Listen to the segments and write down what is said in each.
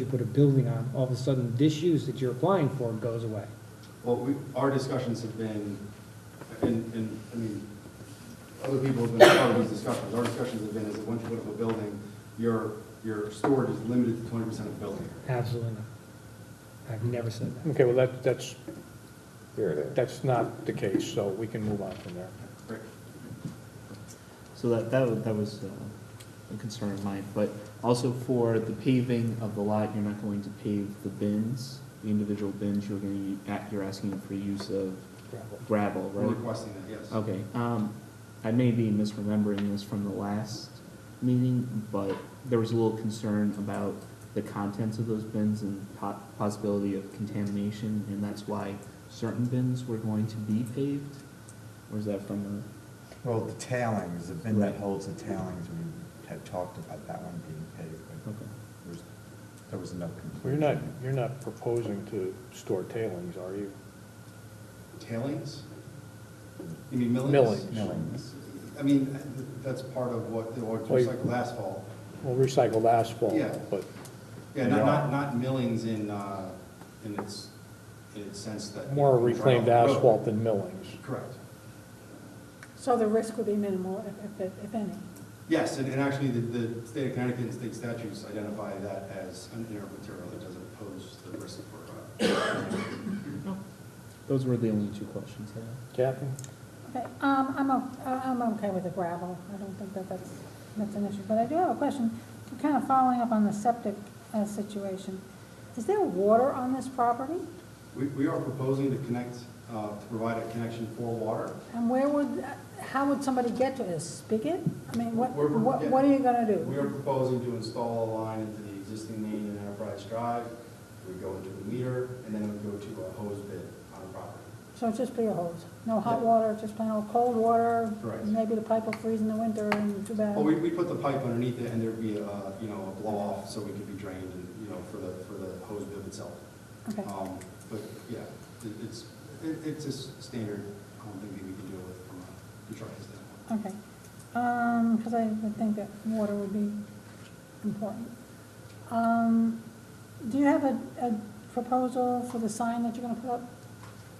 you put a building on, all of a sudden, this use that you're applying for goes away. Well, we, our discussions have been, and, and, I mean, other people have been part of these discussions. Our discussions have been is that once you put up a building, your, your storage is limited to twenty percent of the building. Absolutely not. I've never said that. Okay, well, that, that's, Here it is. that's not the case, so we can move on from there. Right. So that, that, wa- that was uh, a concern of mine, but also for the paving of the lot, you're not going to pave the bins, the individual bins, you're going to, you're asking for use of gravel, We're right? requesting that, yes. Okay, um, I may be misremembering this from the last meeting, but there was a little concern about the contents of those bins and po- possibility of contamination, and that's why certain bins were going to be paved? Or is that from Well, the tailings, the bin that Right. holds the tailings, we had talked about that one being paved, a, but okay. there was, there was no conclusion. Well, you're not, you're not proposing to store tailings, are you? Tailings? You mean millings? Millings. Millings. I mean, that's part of what, the or Well, you- recycled asphalt. Well, recycled asphalt, Yeah. but, Yeah, not, Yeah. not, not millings in, uh, in its, in its sense that. more reclaimed asphalt than than millings. Correct. So the risk would be minimal, if- if, it- if any. Yes, and, and actually, the, the state of Connecticut and state statutes identify that as an inert material that doesn't pose the risk for, uh, Those were the only two questions I had. Kathy? Okay, um, I'm, o- I'm okay with the gravel, I don't think that that's, that's an issue, but I do have a question, kind of following up on the septic uh, situation. Is there water on this property? we, we are proposing to connect, uh, to provide a connection for water. And where would, how would somebody get to it, a spigot? I mean, what, We're- what what are you gonna We are do? proposing to install a line into the existing main and enterprise drive, we go into a meter, and then we go to a hose bid on the property. So it'd just be a hose, no hot Yeah. water, just plain old cold water? Correct. Maybe the pipe will freeze in the winter and too bad. Well, we, we put the pipe underneath it, and there'd be a, you know, a blow off, so we could be drained, and, you know, for the, for the hose bib itself. Okay. Um, But, yeah, it- it's, it- it's a s- standard, um, thing that we can deal with from a construction standpoint. Okay, Um, 'cause because I would think that water would be important. Um, do you have a, a proposal for the sign that you're gonna put up?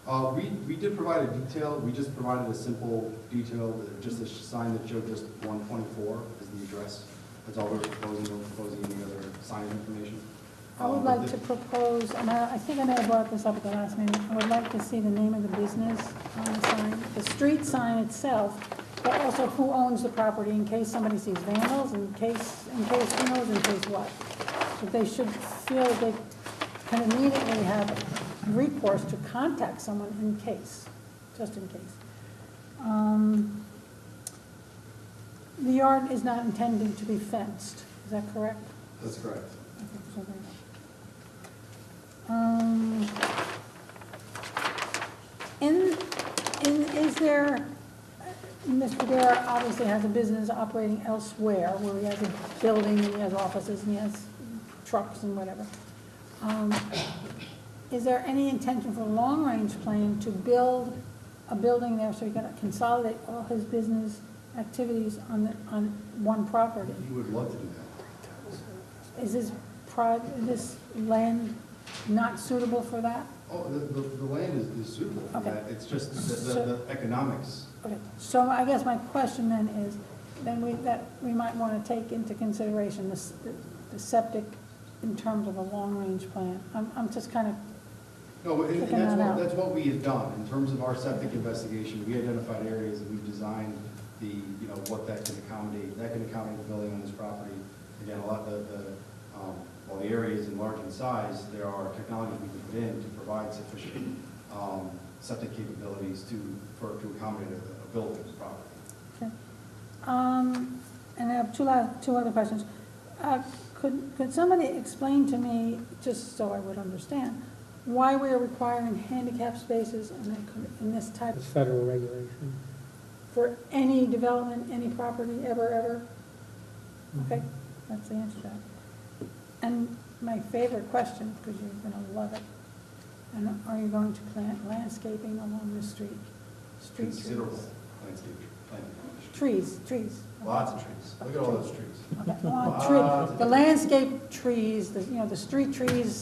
Uh, we, we did provide a detail, we just provided a simple detail, uh, just a sh- sign that showed just one twenty-four is the address. That's all we're proposing, we're proposing any other sign information. I would Um, but like the- to propose, and I, I think I may have brought this up at the last meeting, I would like to see the name of the business on the sign, the street sign itself, but also who owns the property in case somebody sees vandals, in case, in case who knows, in case what. But they should feel that they can immediately have recourse to contact someone in case, just in case. Um, The yard is not intended to be fenced, is that correct? That's correct. Um, In, in, is there, Mr. Dare obviously has a business operating elsewhere, where he has a building, and he has offices, and he has trucks and whatever. Um, Is there any intention for long-range plan to build a building there so he can consolidate all his business activities on, the- on one property? You would love to do that. Is this pri this land not suitable for that? Oh, the, the, the land is- is suitable for Okay. that, it's just the, the So- the economics. Okay, so I guess my question then is, then we, that, we might want to take into consideration this, the septic in terms of a long-range plan. I'm, I'm just kind of, No, and and Checking that's that what, out. that's what we have done, in terms of our septic investigation, we identified areas and we've designed the, you know, what that can accommodate, that can accommodate the building on this property. Again, a lot, the, the, um, while the area is enlarged in size, there are technologies we can put in to provide sufficient, um, septic capabilities to, for, to accommodate a, a building's property. okay. Um, and I have two last, two other questions. Uh, could, could somebody explain to me, just so I would understand, why we are requiring handicap spaces in that- in this type It's federal regulation. for any development, any property, ever, ever? Okay, that's the answer to that. And my favorite question, because you're gonna love it, and are you going to plant landscaping along the street? Street trees? Considerable landscape, planting. trees, trees. Lots of trees. Look at all those trees. Okay, I want tree- The landscape trees, the, you know, the street trees,